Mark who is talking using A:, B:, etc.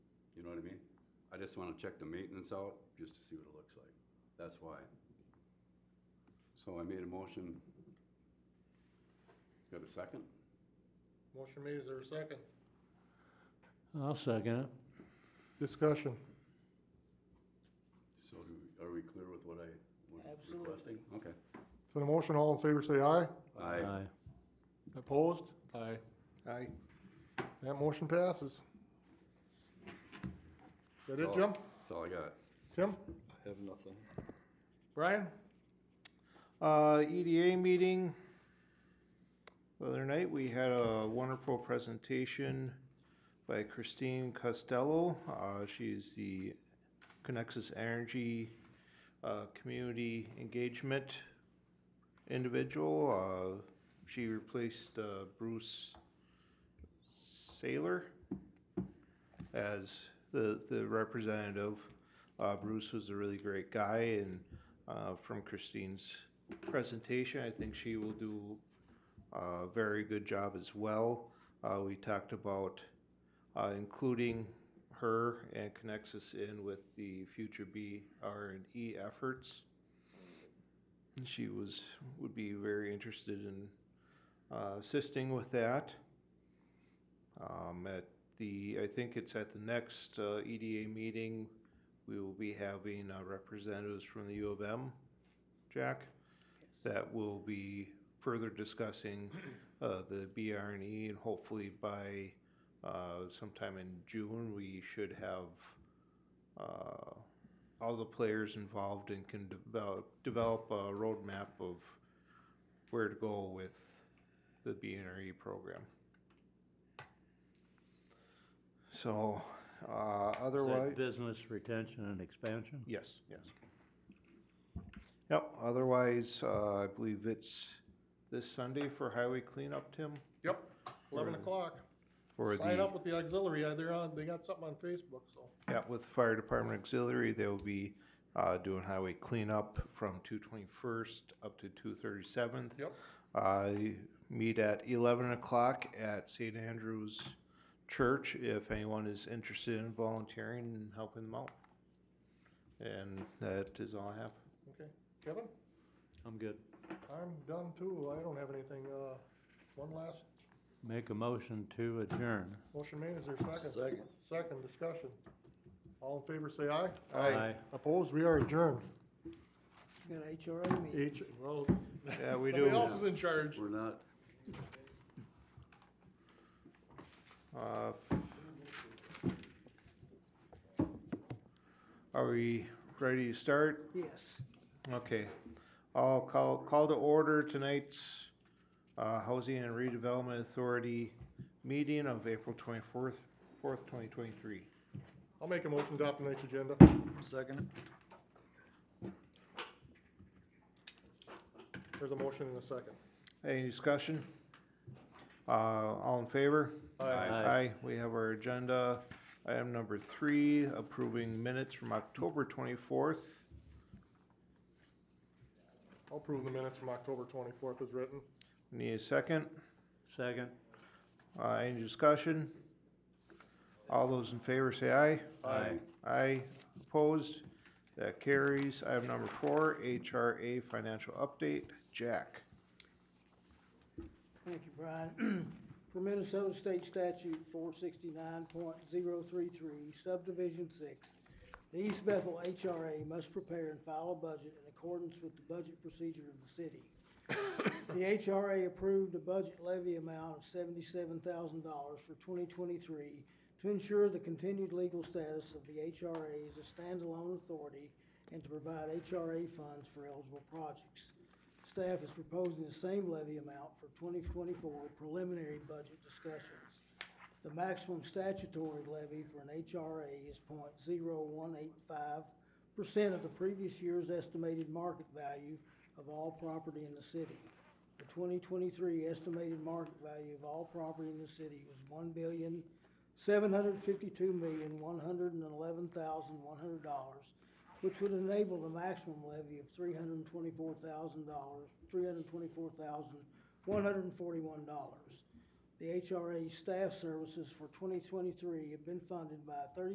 A: I mean? I just wanna check the maintenance out, just to see what it looks like, that's why. So I made a motion. Got a second?
B: Motion made, is there a second?
C: I'll second it.
B: Discussion.
A: So do, we- are we clear with what I was
D: Absolutely.
A: requesting? Okay.
B: So the motion, all in favor say aye.
A: I,
B: Opposed? Aye. Aye. That motion passes. That it,
A: That's all.
B: Jim?
A: that's all I got.
B: Tim?
E: I have nothing.
B: Brian?
D: Uh, EDA meeting. The other night, we had a wonderful presentation by Christine Costello. Uh, she's the Connexus Energy, uh, Community Engagement individual. Uh, she replaced, uh, Bruce Saylor as the, the representative. Uh, Bruce was a really great guy and, uh, from Christine's presentation. I think she will do a very good job as well. Uh, we talked about uh, including her and connects us in with the future B R and E efforts. And she was would be very interested in uh, assisting with that. Um, at the I think it's at the next uh, EDA meeting we will be having uh, representatives from the U of M, Jack, that will be further discussing uh, the BRNE and hopefully by uh, sometime in June, we should have uh, all the players involved and can develop, develop a roadmap of where to go with the BRNE E program. So, uh, otherwise.
C: Business retention and expansion.
D: Yes, yes. Yep, otherwise, uh, I believe it's this Sunday for highway cleanup, Tim?
B: Yep. Eleven
D: Or-
B: o'clock.
D: For
B: Sign
D: the,
B: up with the auxiliary, uh, they're on, they got something on Facebook, so.
D: yeah, with the fire department auxiliary, they will be, uh, doing highway cleanup from two twenty-first up to two thirty-seventh.
B: Yep.
D: Uh, meet at eleven o'clock at St. Andrew's Church if anyone is interested in volunteering and helping them out. And that is all I have.
B: Okay. Kevin?
C: I'm good.
B: I'm done too, I don't have anything, uh, one last
C: Make a motion to adjourn.
B: motion made, is there a second?
E: Second.
B: Second, discussion. All in favor say aye.
C: Aye.
B: Opposed, we are adjourned.
F: You got an HRA meeting.
B: H, well,
D: Yeah, we do.
B: somebody else is in charge.
A: We're not
D: Uh, Are we ready to start?
F: Yes.
D: Okay. I'll call, call to order tonight's uh, Housing and Redevelopment Authority meeting of April twenty-fourth, fourth, twenty twenty-three.
B: I'll make a motion to adopt tonight's agenda.
E: Second?
B: There's a motion and a second.
D: Any discussion? Uh, all in favor?
C: Aye.
D: Aye, we have our agenda. Item number three, approving minutes from October twenty-fourth.
B: I'll approve the minutes from October twenty-fourth as written.
D: Need a second?
C: Second.
D: Uh, any discussion? All those in favor say aye.
A: Aye.
D: Aye, opposed, that carries. Item number four, HRA financial update, Jack.
F: Thank you, Brian. For Minnesota State Statute four sixty-nine point zero three three, subdivision six, the East Bethel HRA must prepare and file a budget in accordance with the budget procedure of the city. The HRA approved a budget levy amount of seventy-seven thousand dollars for twenty twenty-three to ensure the continued legal status of the HRA as a standalone authority and to provide HRA funds for eligible projects. Staff is proposing the same levy amount for twenty twenty-four preliminary budget discussions. The maximum statutory levy for an HRA is 0.0185 percent of the previous year's estimated market value of all property in the city. The twenty twenty-three estimated market value of all property in the city was one billion, seven hundred fifty-two million, one hundred and eleven thousand, one hundred dollars, which would enable the maximum levy of three hundred and twenty-four thousand dollars, three hundred and twenty-four thousand, one hundred and forty-one dollars. The HRA staff services for twenty twenty-three have been funded by thirty.